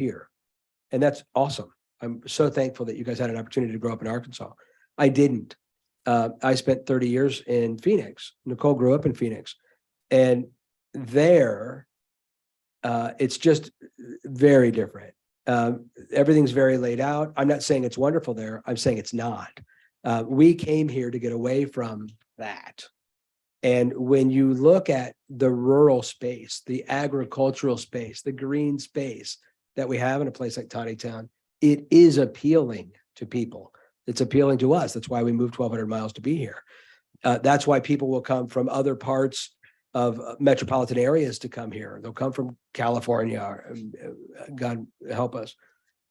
here. And that's awesome. I'm so thankful that you guys had an opportunity to grow up in Arkansas. I didn't. Uh, I spent thirty years in Phoenix. Nicole grew up in Phoenix. And there, uh, it's just very different. Um, everything's very laid out. I'm not saying it's wonderful there. I'm saying it's not. Uh, we came here to get away from that. And when you look at the rural space, the agricultural space, the green space that we have in a place like Tawny Town, it is appealing to people. It's appealing to us. That's why we moved twelve hundred miles to be here. Uh, that's why people will come from other parts of uh, metropolitan areas to come here. They'll come from California, or, um, uh, God help us,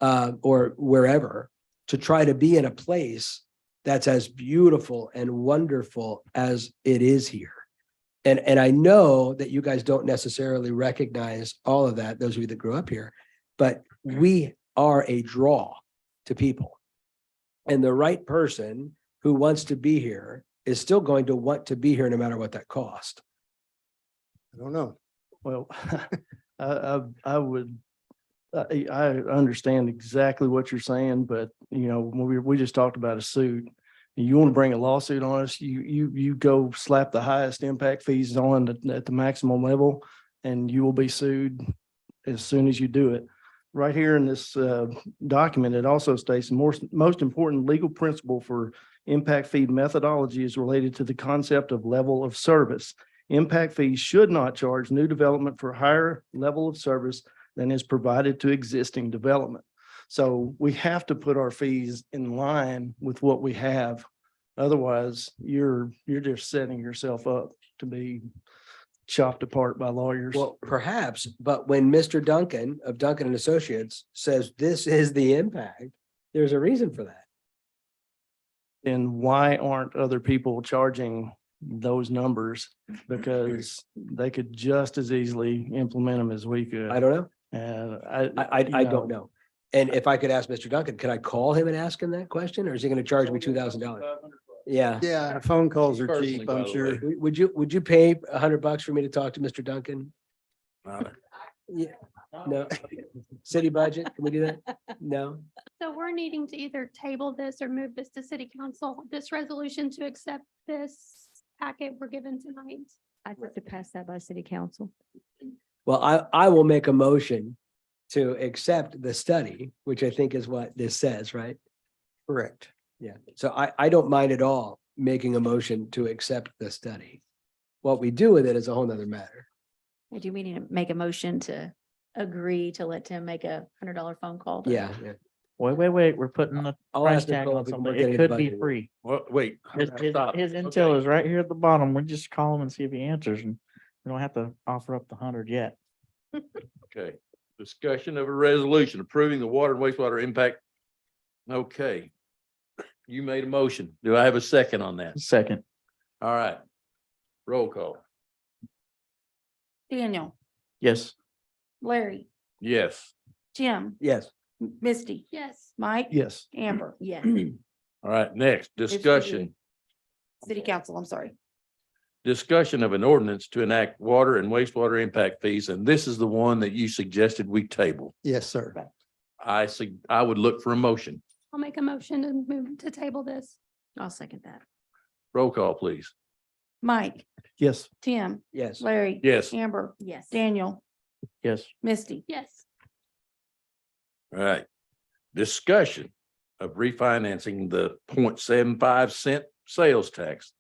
uh, or wherever to try to be in a place that's as beautiful and wonderful as it is here. And, and I know that you guys don't necessarily recognize all of that, those of you that grew up here, but we are a draw to people. And the right person who wants to be here is still going to want to be here no matter what that cost. I don't know. Well, I, I, I would, I, I understand exactly what you're saying, but you know, when we, we just talked about a suit. You want to bring a lawsuit on us, you, you, you go slap the highest impact fees on at, at the maximum level and you will be sued as soon as you do it. Right here in this, uh, document, it also states more, most important legal principle for impact fee methodology is related to the concept of level of service. Impact fees should not charge new development for higher level of service than is provided to existing development. So we have to put our fees in line with what we have. Otherwise, you're, you're just setting yourself up to be chopped apart by lawyers. Well, perhaps, but when Mr. Duncan of Duncan and Associates says this is the impact, there's a reason for that. Then why aren't other people charging those numbers? Mm-hmm. Because they could just as easily implement them as we could. I don't know. And I. I, I, I don't know. know. And if I could ask Mr. Duncan, could I call him and ask him that question or is he going to charge me two thousand dollars? Yeah. Yeah, phone calls are Personally, cheap, by I'm the sure. way. W- Would you, would you pay a hundred bucks for me to talk to Mr. Duncan? Yeah, no. City budget, can we do that? No? So we're needing to either table this or move this to city council, this resolution to accept this packet we're given tonight. I'd have to pass that by city council. Well, I, I will make a motion to accept the study, which I think is what this says, right? Correct. Yeah, so I, I don't mind at all making a motion to accept the study. What we do with it is a whole nother matter. I do we need to make a motion to agree to let Tim make a hundred dollar phone call? to- Yeah. yeah. Wait, wait, wait, we're putting the I'll price ask tag Nicole on if we can work something. in It the could be budget. free. What, wait. hold His, on, his, stop. his Okay. intel is right here at the bottom. We just call him and see if he answers and we don't have to offer up the hundred yet. Okay, discussion of a resolution approving the water and wastewater impact. Okay. You made a motion. Do I have a second on that? Second, All right. Roll call. Daniel, yes. Larry, Yes. Jim, Yes. Misty, Yes, Mike, Yes. Amber, Yes. All right, next, discussion, City Council, I'm sorry. discussion of an ordinance to enact water and wastewater impact fees. And this is the one that you suggested we table. Yes, sir. I see, I would look for a motion. I'll make a motion to move to table this. I'll second that. Roll call, please. Mike, Yes. Tim, Yes. Larry. Yes. Amber, Yes. Daniel, Yes. Misty, Yes, All right. Discussion of refinancing the 0.75 cent sales tax.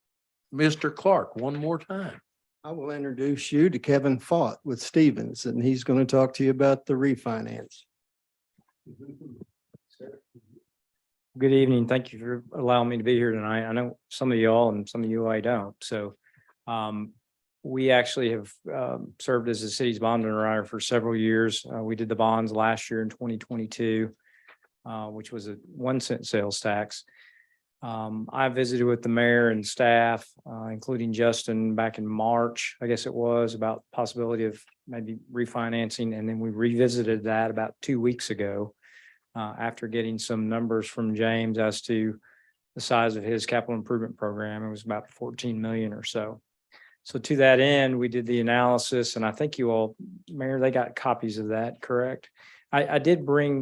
Mr. Clark, one more time. I will introduce you to Kevin Fott with Stevens, and he's going to talk to you about the refinance. Good evening. Thank you for allowing me to be here tonight. I know some of y'all and some of you I don't, so. Um, we actually have um served as the city's bond underwriter for several years. Uh, we did the bonds last year in twenty twenty-two. Uh, which was a one cent sales tax. Um, I visited with the mayor and staff, uh, including Justin back in March, I guess it was, about possibility of maybe refinancing, and then we revisited that about two weeks ago uh, after getting some numbers from James as to the size of his capital improvement program. It was about fourteen million or so. So to that end, we did the analysis and I think you all, Mayor, they got copies of that, correct? I, I did bring